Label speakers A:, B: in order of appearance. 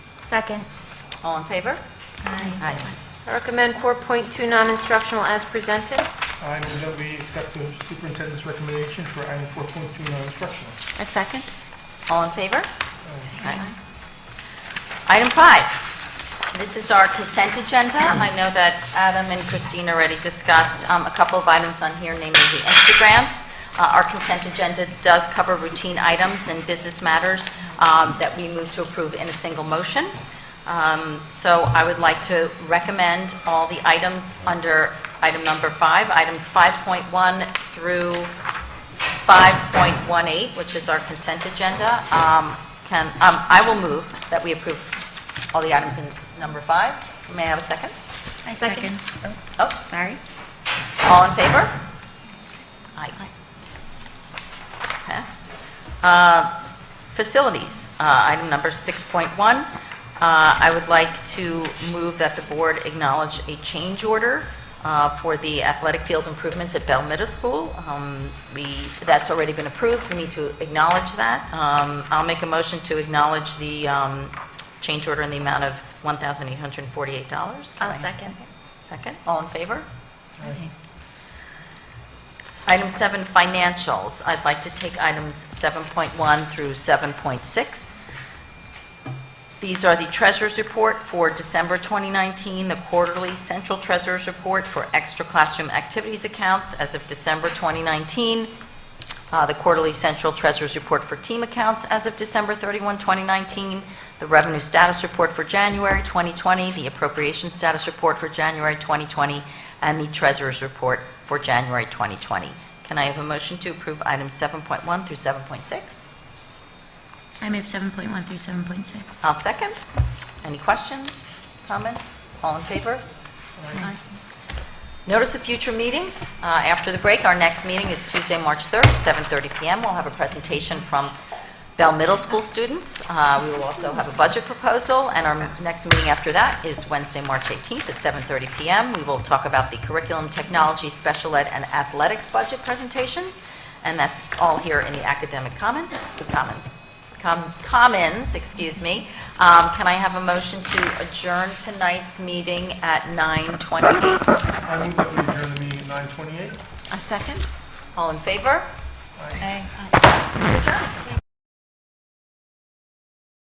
A: Second.
B: All in favor?
A: Aye.
B: Aye.
C: I recommend 4.2 non-instructional as presented.
D: I move that we accept the superintendent's recommendation for item 4.2 non-instructional.
A: A second.
B: All in favor? Aye. Item five, this is our consent agenda. Um, I know that Adam and Christine already discussed um, a couple of items on here, namely the Instagrams. Uh, Our consent agenda does cover routine items and business matters um, that we move to approve in a single motion. Um, So I would like to recommend all the items under item number five, items 5.1 through 5.18, which is our consent agenda, um, can, um, I will move that we approve all the items in number five. May I have a second?
A: I second.
B: Oh,
A: Sorry.
B: all in favor? Aye. Passed. Uh, Facilities, uh, item number 6.1. Uh, I would like to move that the board acknowledge a change order uh, for the athletic field improvements at Bell Middle School. Um, We, that's already been approved, we need to acknowledge that. Um, I'll make a motion to acknowledge the um, change order in the amount of $1,848.
A: I'll second.
B: Second, all in favor? Item seven, financials. I'd like to take items 7.1 through 7.6. These are the treasurer's report for December 2019, the quarterly central treasurer's report for extra classroom activities accounts as of December 2019, uh, the quarterly central treasurer's report for team accounts as of December 31, 2019, the revenue status report for January 2020, the appropriation status report for January 2020, and the treasurer's report for January 2020. Can I have a motion to approve items 7.1 through 7.6?
A: I move 7.1 through 7.6.
B: I'll second. Any questions, comments? All in favor?
A: Aye.
B: Notice of future meetings. Uh, After the break, our next meeting is Tuesday, March 3rd, 7:30 PM. We'll have a presentation from Bell Middle School students. Uh, We will also have a budget proposal, and our next meeting after that is Wednesday, March 18th at 7:30 PM. We will talk about the curriculum, technology, special ed, and athletics budget presentations, and that's all here in the academic comments, the commons, com- commons, excuse me. Um, Can I have a motion to adjourn tonight's meeting at 9:20?
D: I move that we adjourn the meeting at 9:28.
B: A second? All in favor?
D: Aye.
B: Adjourn.